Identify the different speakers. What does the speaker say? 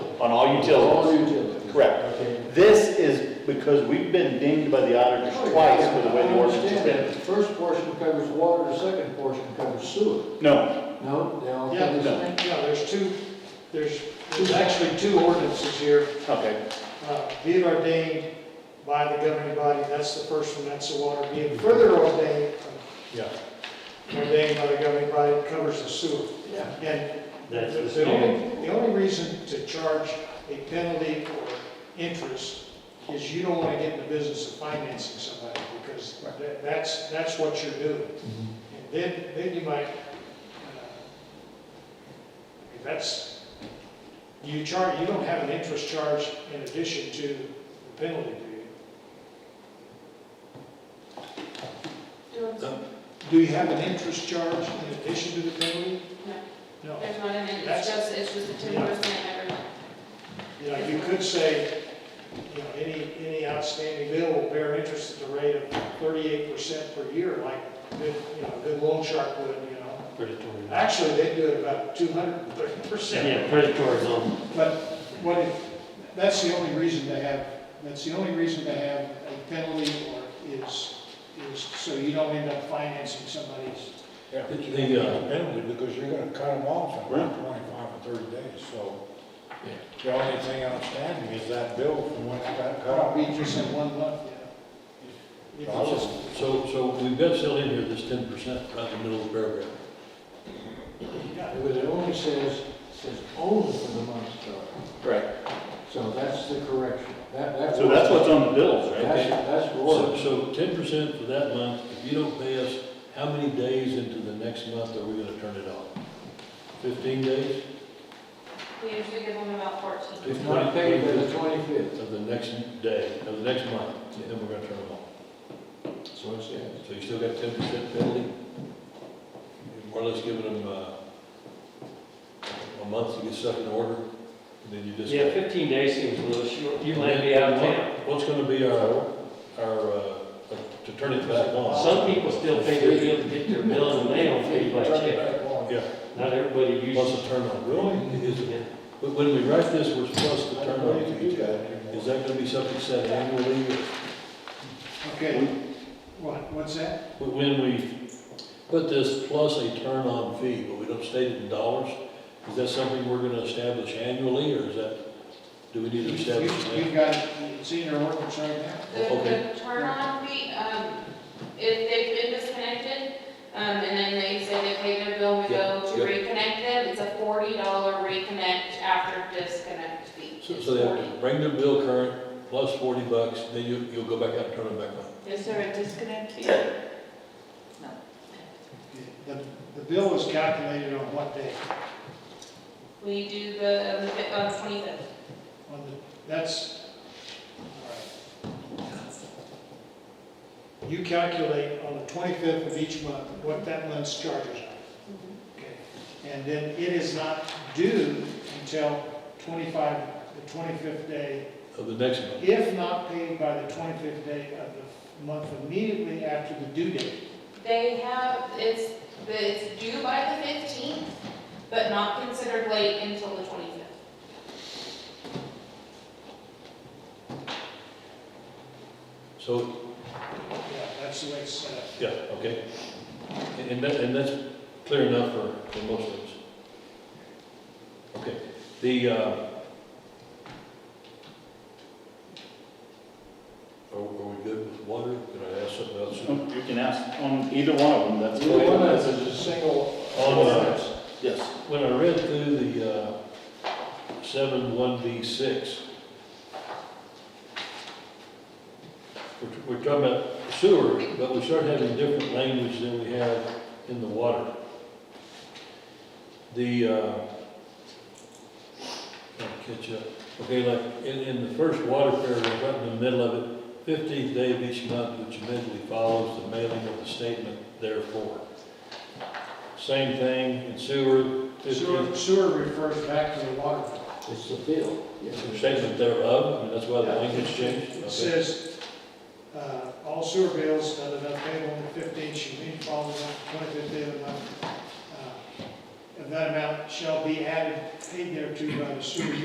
Speaker 1: on all
Speaker 2: All
Speaker 1: utilities.
Speaker 2: utilities.
Speaker 1: Correct.
Speaker 2: Okay.
Speaker 1: This is because we've been dinged by the auditors twice for the way the ordinance has
Speaker 2: I Oh, understand.
Speaker 1: been.
Speaker 2: The First portion covers water, the second portion covers sewer.
Speaker 1: No,
Speaker 2: No, they all
Speaker 3: Yeah,
Speaker 2: cover the same?
Speaker 3: there's- yeah, there's two, there's, there's actually two ordinances here.
Speaker 1: okay,
Speaker 3: Uh, Be it ordained by the governing body, that's the first one, that's the water. Be it further ordained,
Speaker 1: yeah.
Speaker 3: ordained by the governing body covers the sewer.
Speaker 2: Yeah.
Speaker 3: And
Speaker 4: That's the
Speaker 3: the only, the only reason to charge a penalty or interest is you don't want to get in the business of financing somebody because
Speaker 1: Right.
Speaker 3: that- that's, that's what you're doing. And Then, then you might, uh, if that's, you charge, you don't have an interest charge in addition to the penalty, do you?
Speaker 5: There's
Speaker 4: No.
Speaker 3: Do you have an interest charge in addition to the penalty? No.
Speaker 5: not an, end,
Speaker 3: That's-
Speaker 5: it's just, it's just a ten percent every month.
Speaker 3: You know, you could say, you know, any, any outstanding bill will bear interest at the rate of thirty-eight percent per year, like, good, you know, good loan shark would, you know.
Speaker 4: predatory.
Speaker 3: Actually, they do it about two hundred and thirty percent.
Speaker 4: Yeah, predatory zone.
Speaker 3: But what if, that's the only reason to have, that's the only reason to have a penalty or is, is so you don't end up financing somebody's.
Speaker 6: Yeah,
Speaker 4: But you-
Speaker 6: they uh, got a penalty because you're gonna cut them off in about twenty-five or thirty days, so. The only thing outstanding is that bill from when it got cut off.
Speaker 3: Probably just in one month, you know.
Speaker 6: I was-
Speaker 4: So, so we've got still in here this ten percent right in the middle of the paragraph.
Speaker 3: Yeah,
Speaker 2: But it only says, says only for the month started.
Speaker 1: Right,
Speaker 2: So that's the correction. That, that.
Speaker 1: so that's what's on the bills, right?
Speaker 2: That's, that's
Speaker 4: So,
Speaker 2: water.
Speaker 4: so ten percent for that month, if you don't pay us, how many days into the next month are we gonna turn it off? Fifteen days
Speaker 5: We usually give them about fourteen.
Speaker 2: It's not paid by the twenty-fifth,
Speaker 4: of the next day, of the next month, and then we're gonna turn it off.
Speaker 2: so it says.
Speaker 4: So you still got ten percent penalty? More or less giving them, uh, a month to get stuff in order, and then you just.
Speaker 7: Yeah, 15 days seems a little short. You might be out of town.
Speaker 4: What's gonna be our, our, uh, to turn it back on?
Speaker 7: Some people still pay their bill, get their bill in the mail, pay by
Speaker 6: Turn it
Speaker 7: check.
Speaker 6: back on.
Speaker 4: Yeah,
Speaker 7: Not everybody uses.
Speaker 4: what's the turn on, really? Is it,
Speaker 7: Yeah.
Speaker 4: when when we write this, we're supposed
Speaker 6: I
Speaker 4: to turn
Speaker 6: don't know
Speaker 4: on
Speaker 6: if you do
Speaker 4: each.
Speaker 6: that anymore.
Speaker 4: Is that gonna be something set annually?
Speaker 3: Okay, what, what's that?
Speaker 4: But When we put this plus a turn on fee, but we don't state it in dollars, is that something we're gonna establish annually, or is that, do we need to establish
Speaker 3: You've-
Speaker 4: it?
Speaker 3: You've got, it's in your ordinance right now.
Speaker 5: The,
Speaker 4: Okay.
Speaker 5: the turn on fee, um, if they've been disconnected, um, and then they say they pay their bill, we
Speaker 4: Yeah,
Speaker 5: go to
Speaker 4: yeah.
Speaker 5: reconnect them, it's a forty dollar reconnect after disconnect fee.
Speaker 4: So
Speaker 5: It's
Speaker 4: so they have
Speaker 5: 40.
Speaker 4: to bring their bill current, plus forty bucks, then you, you'll go back out and turn it back on.
Speaker 5: Is there a disconnect fee?
Speaker 3: The, the bill was calculated on what day?
Speaker 5: We do the, on the twenty-fifth.
Speaker 3: On the, that's, all right. You calculate on the twenty-fifth of each month what that month's charges are,
Speaker 5: Mm-hmm.
Speaker 3: okay? And then it is not due until twenty-five, the twenty-fifth day,
Speaker 4: Of the next month,
Speaker 3: if not paid by the twenty-fifth day of the month immediately after the due date.
Speaker 5: They have, it's, it's due by the fifteenth, but not considered late until the twenty-fifth.
Speaker 4: so
Speaker 3: Yeah, that's the way it's set up.
Speaker 4: Yeah, okay. And- And that, and that's clear enough for, for most of us. Okay, the, uh, are, are we good with water? Can I ask something else?
Speaker 1: Oh, You can ask on either one of them, that's.
Speaker 6: The one that's
Speaker 1: that's-
Speaker 6: a single.
Speaker 4: On, uh,
Speaker 1: Yes.
Speaker 4: when I read through the, uh, seven one B six, we're, we're talking about sewer, but we start having different language than we have in the water. The, uh, I'll catch up, okay, like, in, in the first water paragraph, right in the middle of it, fifteenth day of each month, which immediately follows the mailing of the statement therefore. Same thing in sewer,
Speaker 3: Sewer,
Speaker 4: fifteenth
Speaker 3: sewer refers back to the water bill.
Speaker 2: It's the bill.
Speaker 4: the statement thereof, I mean, that's why the language changed.
Speaker 3: It
Speaker 4: Okay.
Speaker 3: says, uh, all sewer bills, da, da, da, paid on the fifteenth, shall be followed on the twenty-fifth day of the month. Uh, And that amount shall be added, paid thereto by the sewer